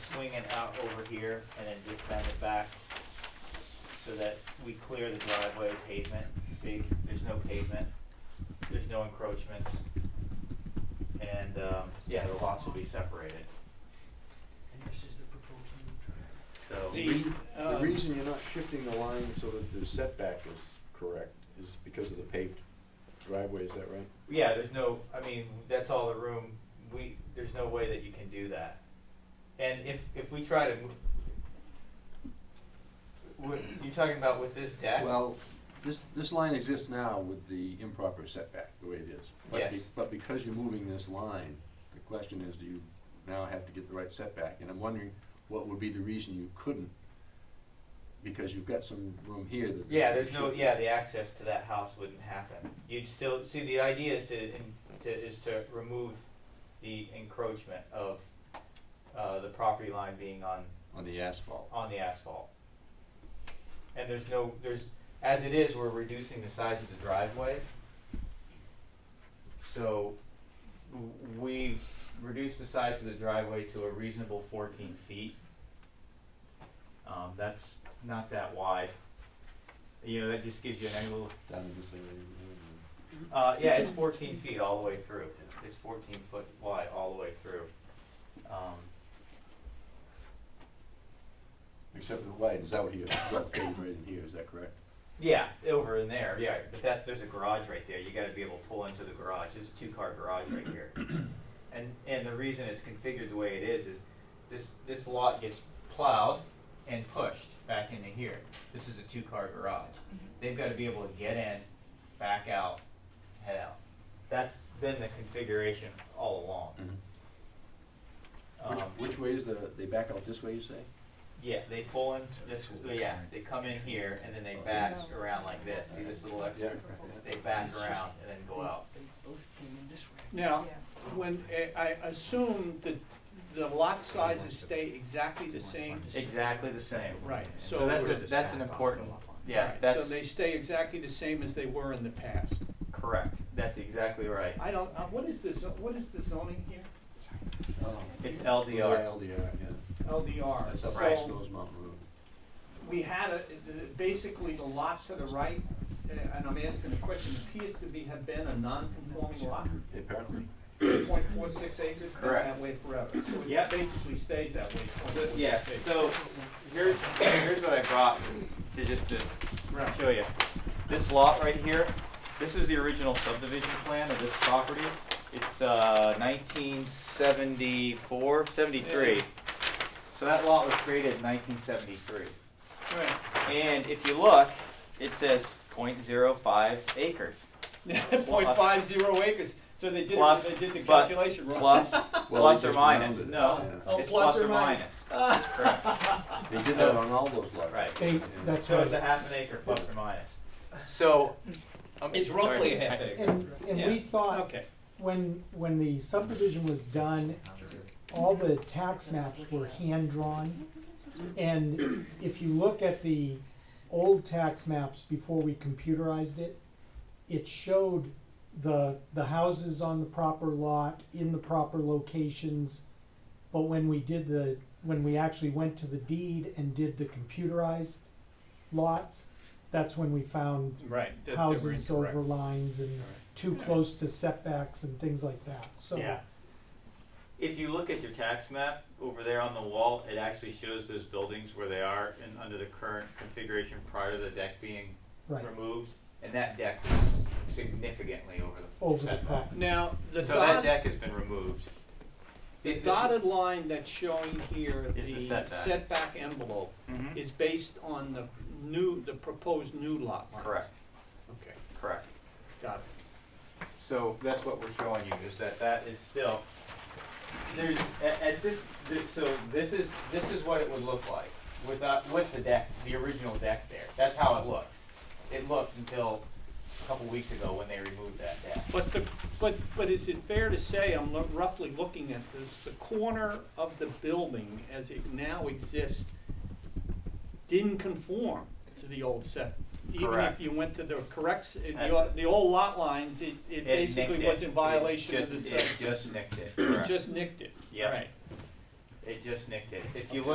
swing it out over here and then just bend it back so that we clear the driveway pavement. See, there's no pavement, there's no encroachments. And, um, yeah, the lots will be separated, And this is the so. proposed new track. The, re- The uh, um, reason you're not shifting the line so that the setback is correct is because of the paved driveway, is that right? Yeah, there's no, I mean, that's all the room, we, there's no way that you can do that. And if, if we try to, mo- what, you're talking about with this deck? Well, this, this line exists now with the improper setback, the way it is. But be- Yes. But because you're moving this line, the question is, do you now have to get the right setback? And I'm wondering, what would be the reason you couldn't? Because you've got some room here that. Yeah, there's no, yeah, the access to that house wouldn't happen. You'd still, see, the idea is to, in- to, is to remove the encroachment of, uh, the property line being on On the asphalt. on the asphalt. And there's no, there's, as it is, we're reducing the size of the driveway. So w- we've reduced the size of the driveway to a reasonable fourteen feet. Um, that's not that wide. You know, that just gives you an angle of Down in this area. uh, yeah, it's fourteen feet all the way through. It's fourteen foot wide all the way through. Um, Except for the light, is out here, it's not paved right in here, is that correct? Yeah, over in there, yeah, but that's, there's a garage right there, you gotta be able to pull into the garage, there's a two-car garage right here. And, and the reason it's configured the way it is, is this, this lot gets plowed and pushed back into here. This is a two-car garage. They've gotta be able to get in, back out, head out. That's been the configuration all along. Which, Um, which way is the, they back out this way, you say? yeah, they pull in this, yeah, they come in here and then they back around like this, see this little extra? They back around and then go out. They both came in this way. Now, Yeah. when, eh, I assume that the lot sizes stay exactly the same. Exactly the same. Right, So so, that's, all a- that's an important, yeah, right, so that's they stay exactly the same as they were in the past. correct. That's exactly right. I don't, uh, what is this, what is the zoning here? Oh, It's LDR. LDR, yeah. LDR. That's up Right. by Snow's Mountain Road. we had a, the- basically the lot to the right, eh, and I'm asking the question, appears to be, have been a non-conforming lot, Apparently. point four six acres, been that Correct. way forever. So Yep. it basically stays that way. So, yeah, 0.46 acres. so here's, here's what I brought to just to Right. show you. This lot right here, this is the original subdivision plan of this property. It's, uh, nineteen seventy-four, seventy-three. Yeah. So that lot was created in nineteen seventy-three. Right. And if you look, it says 0.05 acres. Point five zero acres, so they did, Plus, it- they did the but, calculation wrong. plus, Well, plus they or just minus, rounded it, no, yeah. it's Oh, plus plus or or minus. Correct. They did that on all those Uh, lots. Right. Yeah. They, that's So it's a right. half an acre plus or minus. So. I'm- It's sorry. roughly a half acre. And, and we Yeah. thought, Okay, when, when the subdivision was done, all the tax maps were hand-drawn. And if you look at the old tax maps before we computerized it, it showed the, the houses on the proper lot, in the proper locations. But when we did the, when we actually went to the deed and did the computerized lots, that's when we found right. that they were houses incorrect. over lines and too close to setbacks and things like that, so. Yeah. If you look at your tax map over there on the wall, it actually shows those buildings where they are and under the current configuration prior to the deck being Right, removed. And that deck was significantly over the. over the setback. property. Now, the So that dotted, deck has been removed. the dotted line that's showing here, Is the the setback. setback envelope, Mm-hmm. Mhm. is based on the new, the proposed new lot line. Correct, Okay, correct. got it. So that's what we're showing you, is that that is still, there's, at, at this, th- so this is, this is what it would look like without, with the deck, the original deck there. That's how it looks. It looked until a couple weeks ago when they removed that deck. But the, but, but is it fair to say, I'm lo- roughly looking at this, the corner of the building as it now exists didn't conform to the old set? Even if Correct. you went to the correct, s- the, That's- o- the old lot lines, it, it It basically nicked it. was in violation of the It just- set. It just nicked it. Just nicked it, Yep. right. It just nicked it. If you look